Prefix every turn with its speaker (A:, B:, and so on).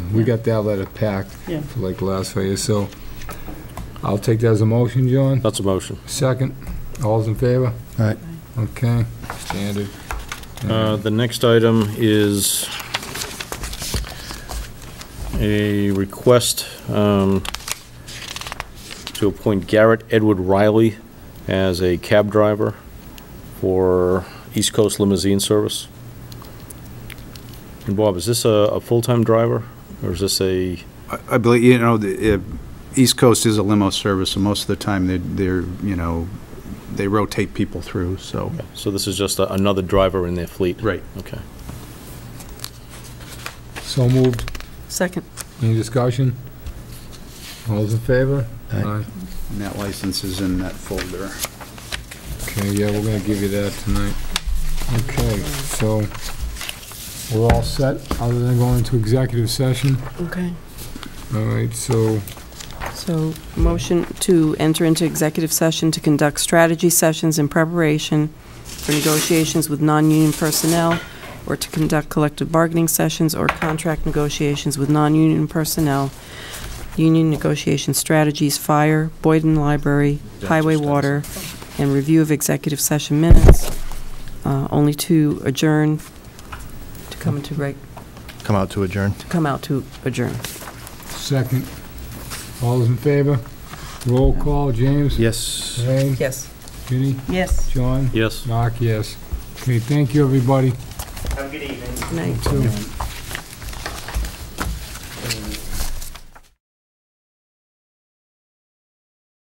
A: we got that letter packed
B: Yeah.
A: for like last year, so I'll take that as a motion, John.
C: That's a motion.
A: Second, all's in favor?
D: Aye.
A: Okay, standard.
C: Uh, The next item is a request um, to appoint Garrett Edward Riley as a cab driver for East Coast Limousine Service. And Bob, is this a, a full-time driver, or is this a,
E: I- I believe, you know, the, uh, East Coast is a limo service, so most of the time, they're- they're, you know, they rotate people through, so.
C: so this is just a- another driver in their fleet?
E: Right.
C: Okay.
A: So moved.
B: Second.
A: Any discussion? All's in favor?
D: Aye.
E: And that license is in that folder.
A: Okay, yeah, we're gonna give you that tonight. Okay, so we're all set, other than going into executive session.
B: Okay.
A: All right, so
B: So, motion to enter into executive session to conduct strategy sessions in preparation for negotiations with non-union personnel, or to conduct collective bargaining sessions or contract negotiations with non-union personnel, union negotiation strategies, fire, Boyden Library, Highway Water, and review of executive session minutes, uh, only to adjourn, to come into reg,
D: Come out to adjourn.
B: to come out to adjourn.
A: Second. All's in favor? Roll call, James?
D: Yes.
A: Elaine?
B: Yes.
A: Ginny?
B: Yes.
A: John?
C: Yes?
A: Mark, yes. Okay, thank you, everybody.
B: Good night.
A: Two.